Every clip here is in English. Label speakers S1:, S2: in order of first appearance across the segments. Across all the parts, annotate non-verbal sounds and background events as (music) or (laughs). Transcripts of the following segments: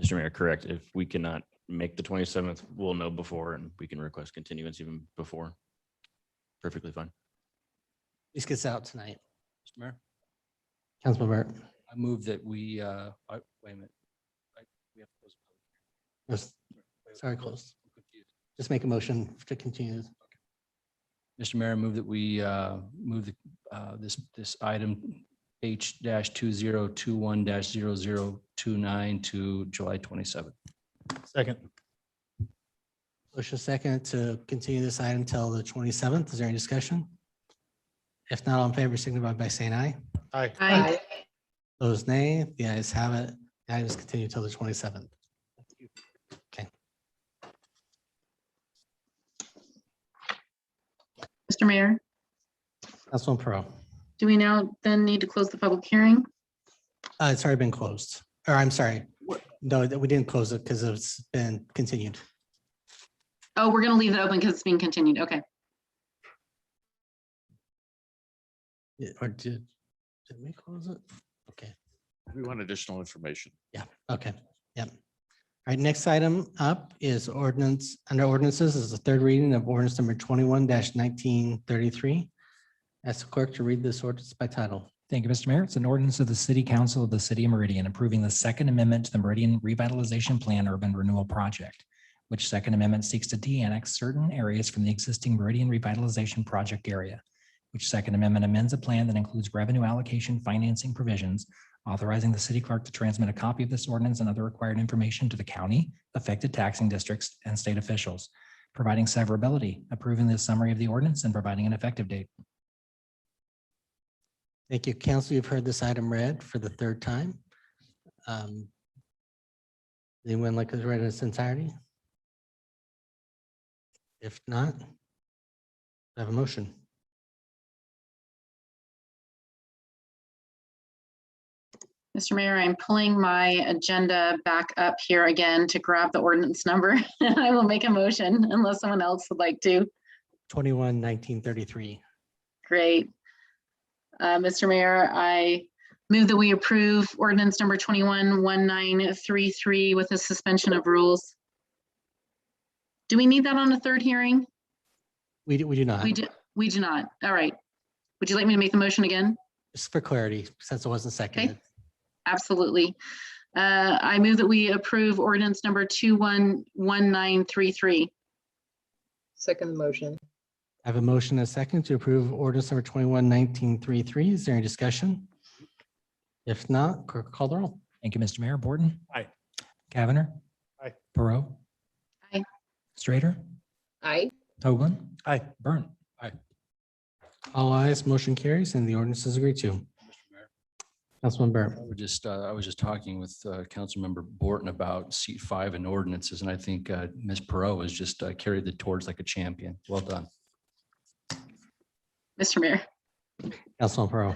S1: Mr. Mayor, correct. If we cannot make the twenty-seventh, we'll know before and we can request continuance even before. Perfectly fine.
S2: This gets out tonight.
S3: Mr. Mayor,
S2: Councilman Burt.
S3: I move that we, uh, I- wait a minute. I- we have to close the
S2: Just-
S3: public hearing.
S2: Sorry, close.
S3: I'm confused.
S2: Just make a motion to continue.
S3: Mr. Mayor, I move that we, uh, move the, uh, this, this item H dash two zero two one dash zero zero two nine to July twenty-seventh.
S4: Second.
S2: Motion second to continue this item till the twenty-seventh. Is there any discussion? If not, all in favor, signify by saying aye.
S4: Aye.
S5: Aye.
S2: Those nay, the ayes have it. The item is continued till the twenty-seventh.
S5: Mr. Mayor,
S2: Councilman Pro.
S5: do we now then need to close the public hearing?
S2: Uh, it's already been closed, or I'm sorry. No, that we didn't close it because it's been continued.
S5: Oh, we're going to leave it open because it's being continued. Okay.
S2: Yeah, Or did, did we close it? Okay.
S6: We want additional information.
S2: Okay, yep. All right, next item up is ordinance, under ordinances is the third reading of ordinance number twenty-one nineteen thirty-three. Ask the clerk to read this ordinance by title.
S7: Thank you, Mr. Mayor. It's an ordinance of the City Council of the City of Meridian approving the Second Amendment to the Meridian Revitalization Plan Urban Renewal Project, which Second Amendment seeks to de-annex certain areas from the existing Meridian Revitalization Project area, which Second Amendment amends a plan that includes revenue allocation financing provisions, authorizing the city clerk to transmit a copy of this ordinance and other required information to the county, affected taxing districts, and state officials, providing severability, approving the summary of the ordinance, and providing an effective date.
S2: Thank you, council. You've heard this item read for the third time. Um, Anyone like to read it in its entirety? If not, I have a motion.
S5: Mr. Mayor, I'm pulling my agenda back up here again to grab the ordinance number. (laughs) I will make a motion unless someone else would like to.
S2: Twenty-one nineteen thirty-three.
S5: Great. Uh, Mr. Mayor, I move that we approve ordinance number 211933 with a suspension of rules. Do we need that on a third hearing?
S2: We do, we do not,
S5: We do, we do not. All right. Would you like me to make the motion again?
S2: just for clarity, since it wasn't seconded.
S5: Absolutely. Uh, I move that we approve ordinance number 211933.
S8: Second motion.
S2: I have a motion and a second to approve ordinance number twenty-one nineteen three-three. Is there any discussion? If not, clerk call the roll.
S7: Thank you, Mr. Mayor. Borton.
S4: Aye.
S7: Cavanagh.
S4: Aye.
S7: Perot.
S5: Aye.
S7: Strater.
S8: Aye.
S7: Hoagland.
S4: Aye.
S7: Burnt.
S2: All ayes, motion carries and the ordinance is agreed to. Councilman Burr,
S3: We're just, uh, I was just talking with, uh, Councilmember Borton about seat five and ordinances, and I think, uh, Ms. Perot has just uh, carried the torch like a champion. Well done.
S5: Mr. Mayor,
S2: Councilman Pro.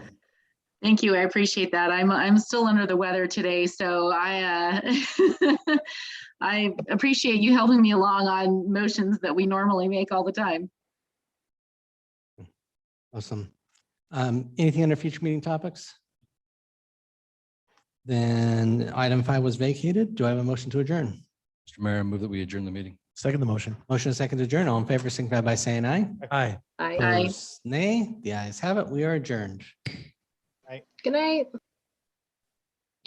S5: thank you. I appreciate that. I'm, I'm still under the weather today, so I, uh, (laughs) I appreciate you helping me along on motions that we normally make all the time.
S2: Awesome. Um, anything under future meeting topics? Then item five was vacated. Do I have a motion to adjourn?
S3: Mr. Mayor, I move that we adjourn the meeting.
S4: Second the motion.
S2: Motion and second to adjourn. All in favor, signify by saying aye.
S4: Aye.
S8: Aye.
S5: Aye.
S2: Opposed, Nay, the ayes have it. We are adjourned.
S8: Good night.